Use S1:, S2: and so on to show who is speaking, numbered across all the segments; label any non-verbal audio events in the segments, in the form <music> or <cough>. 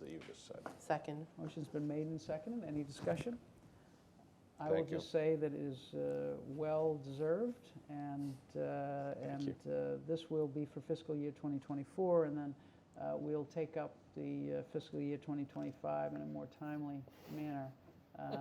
S1: that you just said.
S2: Second.
S3: Motion's been made and seconded. Any discussion? I will
S1: Thank you.
S3: just say that it is uh, well-deserved, and, uh, and uh, this will be for fiscal year 2024, and then uh, we'll take up the uh, fiscal year 2025 in a more timely manner, uh, uh,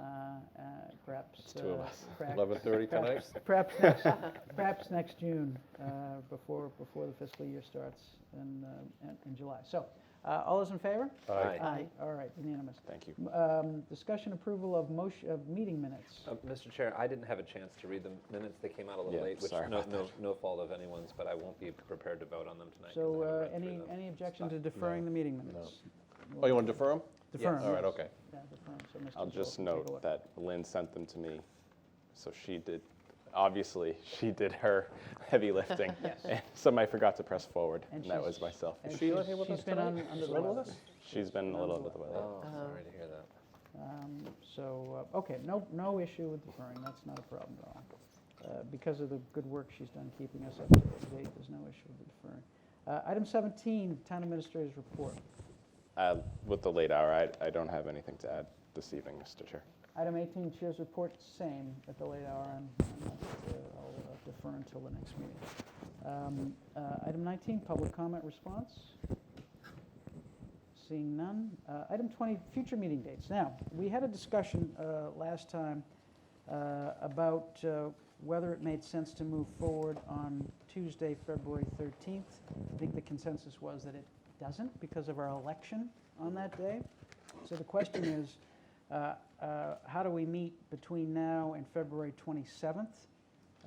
S3: perhaps.
S1: It's two of
S3: uh,
S1: us.
S3: <laughs> perhaps-
S1: 11:30 tonight?
S3: perhaps- <laughs> Perhaps, next- perhaps next June, uh, before, before the fiscal year starts in, uh, in- in July. So, uh, all those in favor?
S1: Aye.
S2: Aye.
S3: All right, unanimous.
S1: Thank you.
S3: Um, Discussion approval of motion, of meeting minutes.
S4: Uh, Mr. Chair, I didn't have a chance to read the minutes. They came out a little
S1: Yeah,
S4: late, which
S1: sorry
S4: no,
S1: about
S4: no, no fault of anyone's, but I won't be prepared to vote on them tonight. 'cause
S3: So
S4: I haven't
S3: uh,
S4: read through
S3: any,
S4: them.
S3: any objection to
S4: Stop.
S3: deferring the
S1: No.
S3: meeting minutes?
S1: Oh, you want to defer them?
S3: Defer 'em,
S1: All right,
S3: yes.
S1: okay.
S3: Yeah, defer 'em, so Mr.
S5: I'll just
S3: Zoll can Uh-huh. take a
S5: note
S3: look.
S5: that Lynn sent them to me, so she did, obviously, <laughs> she did her heavy
S3: <laughs>
S5: lifting. And Some I forgot to press forward,
S3: And
S5: and that
S3: she's-
S5: was myself.
S3: and
S1: Is she
S3: she's-
S1: here with us
S3: She's been
S1: tonight?
S3: on, under
S1: She's
S3: the
S1: been with
S3: weather.
S1: us?
S5: She's been a little under the weather.
S3: uh,
S4: Oh, sorry to hear that.
S3: Um, So, uh, okay, no, no issue with deferring, that's not a problem at all. Uh, Because of the good work she's done keeping us up to date, there's no issue with the deferring. Uh, Item 17, Town Administrator's Report.
S5: Uh, With the late hour, I, I don't have anything to add this evening, Mr. Chair.
S3: Item 18, Chair's Report, same at the late hour, and and, uh, I'll uh, defer until the next meeting. Um, uh, Item 19, Public Comment Response. Seeing none. Uh, Item 20, Future Meeting Dates. Now, we had a discussion uh, last time uh, about uh, whether it made sense to move forward on Tuesday, February 13th. I think the consensus was that it doesn't because of our election on that day. So the question is, uh, uh, how do we meet between now and February 27th?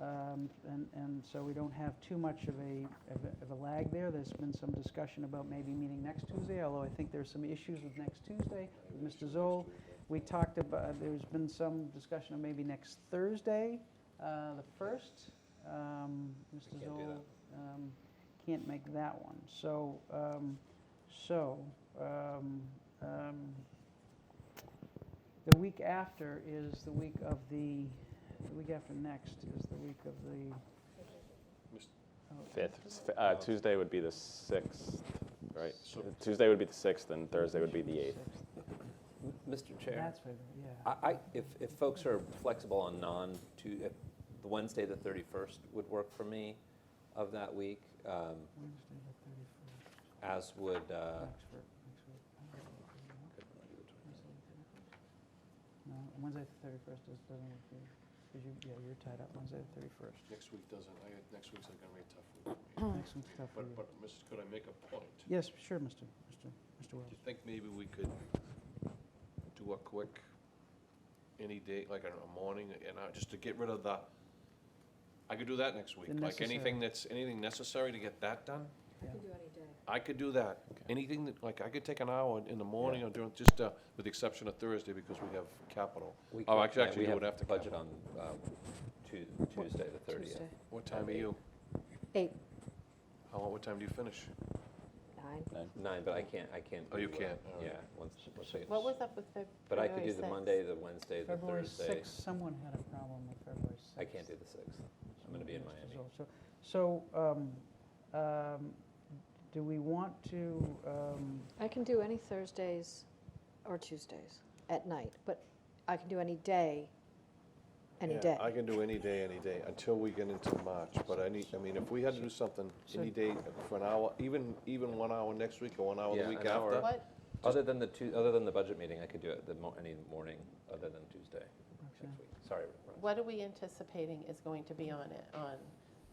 S3: Um, And, and so we don't have too much of a, of a- of a lag there. There's been some discussion about maybe meeting next Tuesday, although I think there's some issues with next Tuesday with Mr. Zoll. We talked about, there's been some discussion of maybe next Thursday, uh, the 1st. Um, Mr.
S4: can't do
S3: Zoll um, can't make that one. So, um, so um, um, the week after is the week of the, the week after next is the week of the.
S1: Mis-
S3: oh,
S5: Fifth, s- f- uh, Tuesday would be the sixth, right? Tuesday would be the sixth, and Thursday would be the eighth.
S3: sixth.
S4: M- Mr. Chair,
S3: That's what, yeah.
S4: I, I, if, if folks are flexible on non, to, if the Wednesday, the 31st would work for me of that week, um,
S3: Wednesday, the 31st,
S4: as would, uh,
S3: next week, next week. No, Wednesday, the 31st is, doesn't work for you, 'cause you, yeah, you're tied up Wednesday, the 31st.
S1: Next week doesn't, I, next week's gonna be a tough week.
S3: Next one's tough for
S1: But,
S3: you.
S1: but, Mrs., could I make a point? Do
S3: Yes, sure, Mr. Mr. Mr. Wells.
S1: you think maybe we could do a quick, any day, like a morning, and I, just to get rid of the, I could do that next week.
S3: The
S1: Like anything
S3: necessary.
S1: that's, anything necessary to get that done?
S3: Yeah.
S6: can do any day.
S1: I could do that.
S5: Okay.
S1: Anything that, like, I could take an hour in the morning or during, just, uh, with the exception of Thursday because we have capital.
S4: we
S1: Oh,
S4: can't-
S1: actually-
S4: yeah,
S1: actually,
S4: we
S1: you
S4: have
S1: would have to
S4: Budget on uh, Tu- Tuesday, the 30th.
S6: Tuesday.
S1: What time are you?
S2: Eight.
S1: How, what time do you finish?
S6: Nine.
S4: Nine, but I can't, I can't.
S1: Oh, you
S4: do, uh,
S1: can't, all right.
S4: Yeah, once, once I-
S2: What was up with Feb-
S4: but I
S2: February
S4: could do the
S2: 6th?
S4: Monday, the Wednesday, the
S3: February
S4: Thursday.
S3: 6th, someone had a problem with February 6th.
S4: I can't do the 6th. I'm gonna be in
S3: Someone
S4: Miami.
S3: has to- So, so, um, um, do we want to, um,
S6: I can do any Thursdays or Tuesdays at night, but I can do any day, any
S1: Yeah,
S6: day.
S1: I can do any day, any day, until we get into March, but I need, I mean, if we had to do something,
S3: So-
S1: any day for an hour, even, even one hour next week or one hour the
S4: Yeah,
S1: week
S4: an hour.
S1: after.
S2: What,
S4: Other than the two, other than the budget meeting, I could do it the mo- any morning other than Tuesday
S3: Roxanne?
S4: next week. Sorry, Ron.
S2: what are we anticipating is going to be on it, on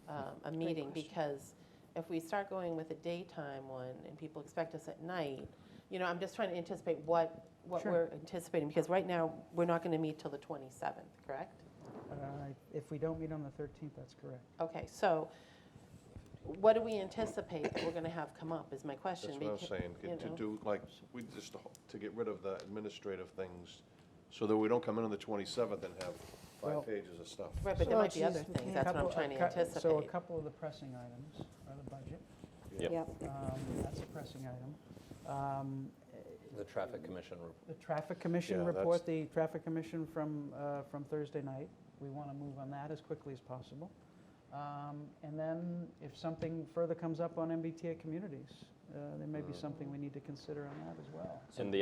S2: um, a meeting?
S6: question.
S2: Because if we start going with a daytime one and people expect us at night, you know, I'm just trying to anticipate what, what
S3: Sure.
S2: we're anticipating. Because right now, we're not going to meet till the 27th, correct?
S3: uh, if we don't meet on the 13th, that's correct.
S2: Okay, so what do we anticipate that we're going to have come up is my question.
S1: That's what I was
S2: because-
S1: saying,
S2: you
S1: get to
S2: know.
S1: do, like, we just, to ho- to get rid of the administrative things, so that we don't come in on the twenty-seventh and have
S3: Well-
S1: five pages of stuff.
S2: Right, but there
S6: Oh,
S2: might be other
S6: geez, we
S2: things,
S6: can't.
S2: that's what I'm
S3: Couple-
S2: trying
S3: a
S2: to
S3: cou- So a
S2: anticipate.
S3: couple of the pressing items are the budget,
S1: Yeah.
S6: Yep.
S3: um, that's a pressing item. Um,
S4: The traffic commission report.
S3: The traffic commission
S1: Yeah, that's-
S3: report, the traffic commission from, uh, from Thursday night. We want to move on that as quickly as possible. Um, And then if something further comes up on MBTA communities, uh,
S1: Uh-huh.
S3: uh, there may be something we need to consider on that as well.
S5: And the